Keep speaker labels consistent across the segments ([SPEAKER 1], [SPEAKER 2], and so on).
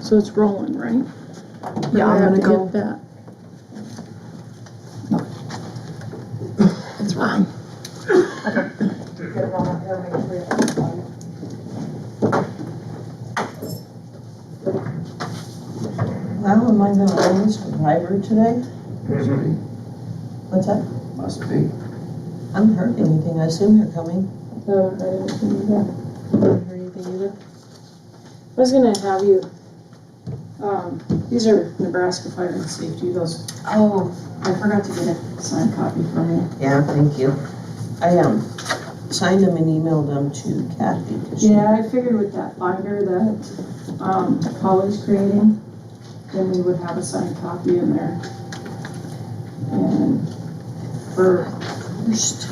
[SPEAKER 1] So it's rolling, right? Or
[SPEAKER 2] Yeah,
[SPEAKER 1] do I have
[SPEAKER 2] I'm gonna
[SPEAKER 1] to
[SPEAKER 2] go-
[SPEAKER 1] hit that?
[SPEAKER 2] It's fine.
[SPEAKER 3] Wow, am I gonna own this from library today?
[SPEAKER 4] Must
[SPEAKER 3] What's that?
[SPEAKER 4] be.
[SPEAKER 3] I haven't heard anything, I assume they're coming.
[SPEAKER 5] No, I didn't see that.
[SPEAKER 3] Haven't heard anything either.
[SPEAKER 5] I was gonna have you, um, these are Nebraska Fire and Safety, those,
[SPEAKER 6] Oh, I forgot to get a signed copy from you.
[SPEAKER 3] Yeah, thank you. I, um, signed them and emailed them to Kathy. 'cause she-
[SPEAKER 5] yeah, I figured with that binder that, um, Polly's creating, then we would have a signed copy in there. And for,
[SPEAKER 3] First,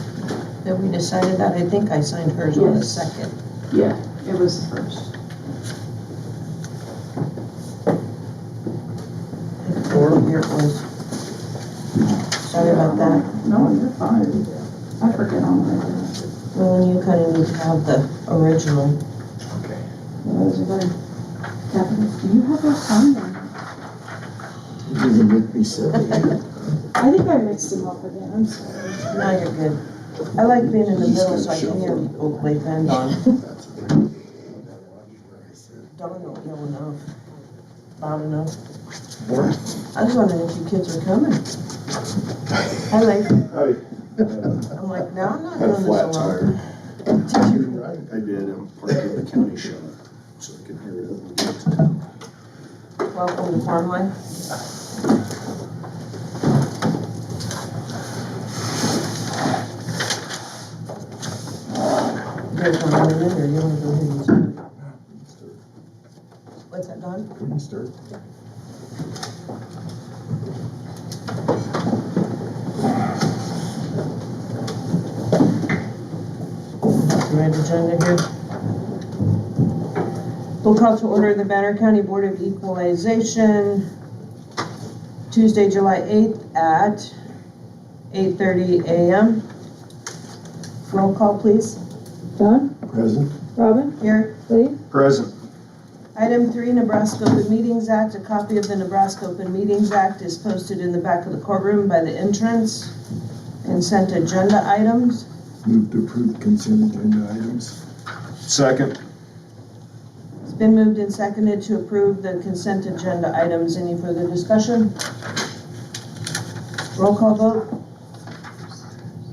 [SPEAKER 3] that we decided that, I think I signed hers on the
[SPEAKER 5] Yes.
[SPEAKER 3] second.
[SPEAKER 5] yeah, it was the first.
[SPEAKER 3] Or here it was. Sorry about that.
[SPEAKER 5] No, you're fine. I forget all my, that
[SPEAKER 3] Well, and you kinda need to have the original.
[SPEAKER 5] was very, Kathy, do you have those signed or?
[SPEAKER 4] Doesn't make me silly.
[SPEAKER 5] I think I mixed them up again, I'm sorry.
[SPEAKER 3] Now you're good. I like being in the
[SPEAKER 4] He's
[SPEAKER 3] middle
[SPEAKER 4] gonna
[SPEAKER 3] so I can hear
[SPEAKER 4] shuffle.
[SPEAKER 3] people play band on.
[SPEAKER 4] That's a pretty-
[SPEAKER 3] Don't know ill enough. Loud enough.
[SPEAKER 4] What?
[SPEAKER 3] I was wondering if you kids were coming. I like, I'm like, no, I'm not
[SPEAKER 4] Had a
[SPEAKER 3] doing
[SPEAKER 4] flat
[SPEAKER 3] this
[SPEAKER 4] tire.
[SPEAKER 3] alone. Did you?
[SPEAKER 4] I did, I'm part of the county shop, so I can hear it when we get to town.
[SPEAKER 3] Welcome to farm life. There's one on the or you wanna go ahead and start? What's that, Don?
[SPEAKER 4] We can start.
[SPEAKER 3] Right agenda here. We'll call to order the Banner County Board of Equalization Tuesday, July 8th at 8:30 a.m. Roll call, please.
[SPEAKER 5] Don,
[SPEAKER 4] Present?
[SPEAKER 5] Robin,
[SPEAKER 3] Here.
[SPEAKER 5] Lee?
[SPEAKER 4] Present.
[SPEAKER 3] Item three, Nebraska Open Meetings Act. A copy of the Nebraska Open Meetings Act is posted in the back of the courtroom by the entrance. Consent agenda items.
[SPEAKER 4] Move to approve consent agenda items. Second.
[SPEAKER 3] It's been moved and seconded to approve the consent agenda items. Any further discussion? Roll call vote?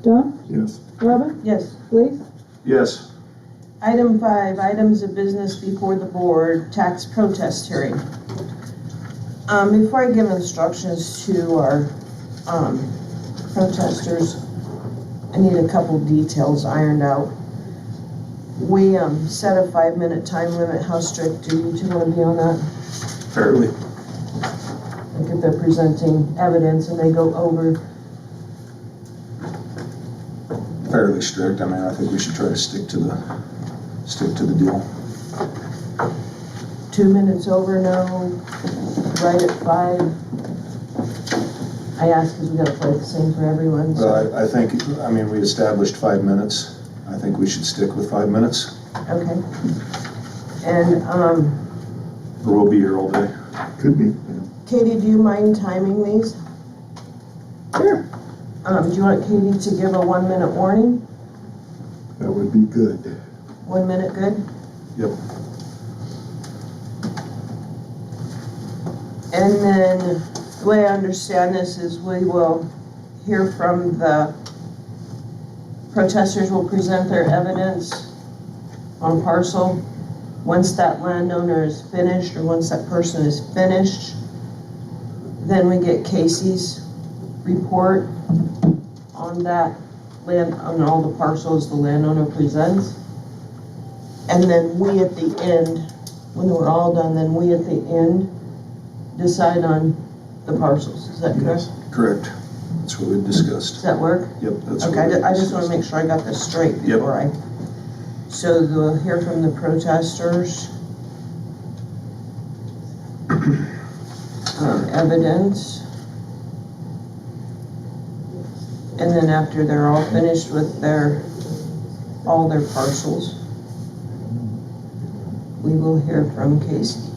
[SPEAKER 5] Don,
[SPEAKER 4] Yes.
[SPEAKER 5] Robin,
[SPEAKER 3] Yes.
[SPEAKER 5] Lee?
[SPEAKER 4] Yes.
[SPEAKER 3] Item five, items of business before the board, tax protest hearing. Um, before I give instructions to our, um, protesters, I need a couple details ironed out. We, um, set a five-minute time limit. How strict do you two wanna be on that?
[SPEAKER 4] Fairly.
[SPEAKER 3] Like if they're presenting evidence and they go over,
[SPEAKER 4] Fairly strict, I mean, I think we should try to stick to the, stick to the deal.
[SPEAKER 3] two minutes over, no, right at five. I ask because we gotta play the same for everyone, so,
[SPEAKER 4] Well, I, I think, I mean, we established five minutes, I think we should stick with five minutes,
[SPEAKER 3] okay. And, um,
[SPEAKER 4] or we'll be here all day. Could be.
[SPEAKER 3] Katie, do you mind timing these?
[SPEAKER 5] Sure.
[SPEAKER 3] Um, do you want Katie to give a one-minute warning?
[SPEAKER 4] That would be good.
[SPEAKER 3] One minute, good?
[SPEAKER 4] Yep.
[SPEAKER 3] And then, the way I understand this is we will hear from the protesters will present their evidence on parcel. Once that landowner is finished, or once that person is finished, then we get Casey's report on that land, on all the parcels the landowner presents. And then we at the end, when we're all done, then we at the end decide on the parcels, is that correct?
[SPEAKER 4] Correct, that's what we discussed,
[SPEAKER 3] Does that work?
[SPEAKER 4] yep, that's what
[SPEAKER 3] Okay, I
[SPEAKER 4] we
[SPEAKER 3] ju- I just
[SPEAKER 4] discussed.
[SPEAKER 3] wanna make sure I got this straight
[SPEAKER 4] Yep.
[SPEAKER 3] before I. So we'll hear from the protesters. Um, evidence. And then after they're all finished with their, all their parcels, we will hear from Casey.